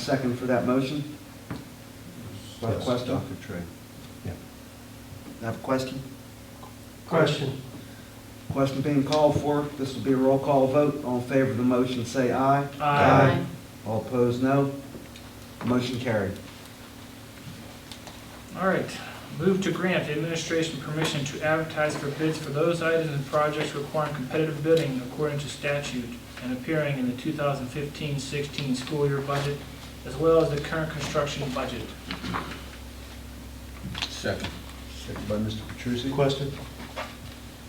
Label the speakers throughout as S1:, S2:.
S1: second for that motion? Do I have a
S2: Yes,
S1: question?
S2: Dr. Trey. Yeah.
S1: I Have a question?
S3: Question.
S1: Question being called for. This will be a roll call vote. All in favor of the motion, say aye.
S3: Aye. Aye.
S1: All opposed, no. Motion carried.
S4: All right, move to grant administration permission to advertise for bids for those items and projects requiring competitive bidding according to statute and appearing in the 2015-16 school year budget, as well as the current construction budget.
S2: Second. Second by Mr. Petrusi.
S3: Question.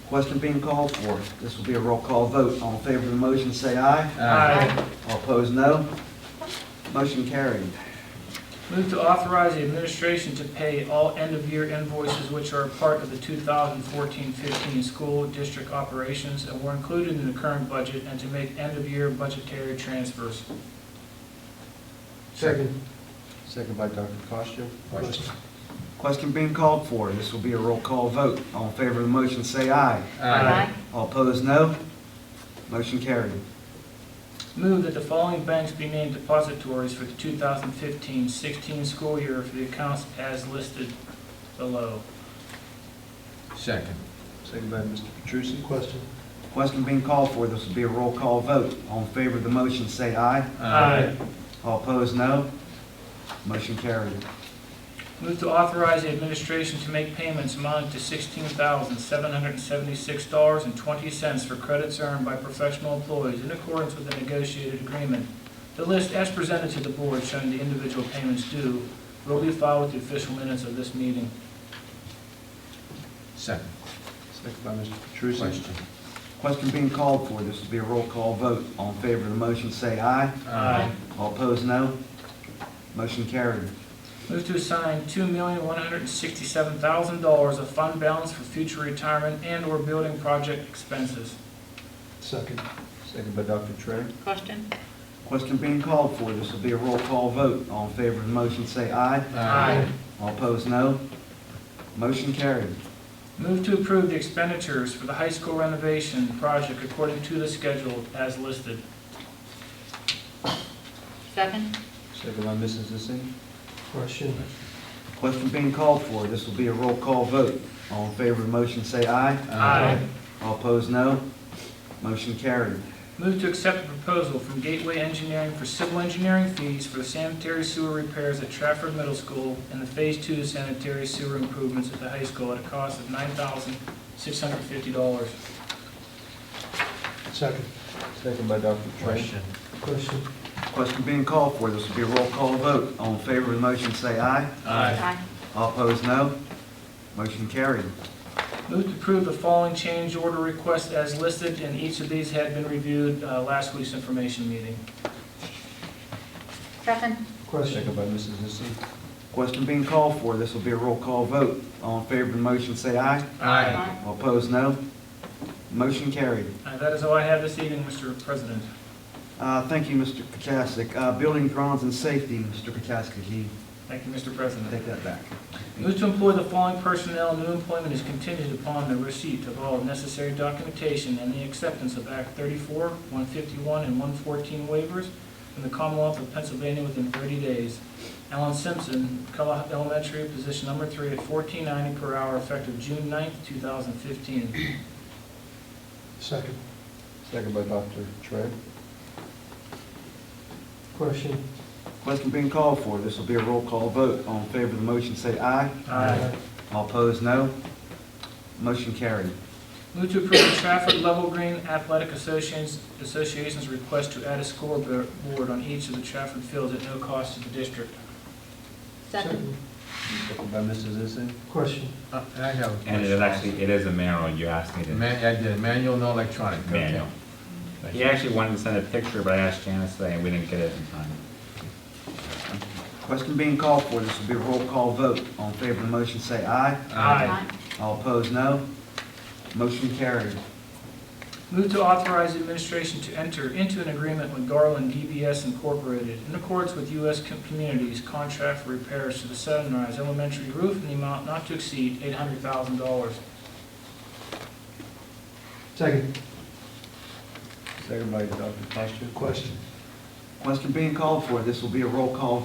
S1: Question being called for. This will be a roll call vote. All in favor of the motion, say aye. All opposed, no. Motion carried.
S4: Move to authorize the administration to pay all end-of-year invoices which are a part of the 2014-15 school district operations and were included in the current budget, and to make end-of-year budgetary transfers.
S3: Second.
S2: Second by Dr. Costo.
S3: Question.
S1: Question being called for. This will be a roll call vote. All in favor of the motion, say aye. All opposed, no. Motion carried.
S4: Move that the following banks be named depositories for the 2015-16 school year for the accounts as listed below.
S2: Second. Second by Mr. Petrusi.
S3: Question.
S1: Question being called for. This will be a roll call vote. All in favor of the motion, say aye. All opposed, no. Motion carried.
S4: Move to authorize the administration to make payments amounting to $16,776.20 for credits earned by professional employees in accordance with the negotiated agreement. The list as presented to the board showing the individual payments due will be filed with the official minutes of this meeting.
S2: Second. Second by Mr. Petrusi. Question.
S1: Question being called for. This will be a roll call vote. All in favor of the motion, say aye. All opposed, no. Motion carried.
S4: Move to assign two million, one hundred and sixty-seven thousand dollars of fund balance for future retirement and/or building project expenses.
S3: Second.
S2: Second by Dr. Trey.
S5: Question?
S1: Question being called for. This will be a roll call vote. All in favor of the motion, say aye. All opposed, no. Motion carried.
S4: Move to approve the expenditures for the high school renovation project according to the schedule as listed.
S5: Second?
S2: Second by Mrs. Zissing.
S3: Question.
S1: Question being called for. This will be a roll call vote. All in favor of the motion, say aye. All opposed, no. Motion carried.
S4: Move to accept the proposal from Gateway Engineering for civil engineering fees for the sanitary sewer repairs at Trafford Middle School and the Phase Two sanitary sewer improvements at the high school at a cost of nine thousand, six hundred and fifty dollars.
S3: Second.
S2: Second by Dr. Trey.
S3: Question.
S1: Question being called for. This will be a roll call vote. All in favor of the motion, say aye.
S5: Aye.
S1: All opposed, no. Motion carried.
S4: Move to approve the following change order request as listed, and each of these had been reviewed uh, last week's information meeting.
S5: Second?
S3: Question.
S2: Second by Mrs. Zissing.
S1: Question being called for. This will be a roll call vote. All in favor of the motion, say aye. All opposed, no. Motion carried.
S4: Uh, That is all I have this evening, Mr. President.
S1: Uh, Thank you, Mr. Kachasik. Uh, Building grounds and safety, Mr. Kachasik, you
S4: Thank you, Mr.
S1: can
S4: President.
S1: take that back.
S4: Move to employ the following personnel. New employment is contingent upon the receipt of all necessary documentation and the acceptance of Act 34, 151, and 114 waivers from the Commonwealth of Pennsylvania within 30 days. Alan Simpson, Cullah Elementary, position number three at 14.90 per hour effective June 9th, 2015.
S3: Second.
S2: Second by Dr. Trey.
S3: Question.
S1: Question being called for. This will be a roll call vote. All in favor of the motion, say aye.
S4: Aye.
S1: All opposed, no. Motion carried.
S4: Move to approve the Trafford Level Green Athletic Associations- Association's request to add a scoreboard on each of the Trafford fields at no cost to the district.
S5: Second?
S2: Second by Mrs. Zissing.
S3: Question.
S6: Uh, I have a question.
S7: And it is actually, it is a manual, you asked me to,
S6: Man, I did, manual, no electronic. okay.
S7: manual. He actually wanted to send a picture, but I asked Janice today, and we didn't get it in time.
S1: Question being called for. This will be a roll call vote. All in favor of the motion, say aye.
S6: Uh,
S5: Aye.
S1: All opposed, no. Motion carried.
S4: Move to authorize the administration to enter into an agreement with Garland DBS Incorporated in accordance with U.S. Com- Communities contract for repairs to the Sunrise Elementary roof in the amount not to exceed $800,000.
S3: Second.
S2: Second by Dr. Costo.
S3: Question.
S1: Question being called for. This will be a roll call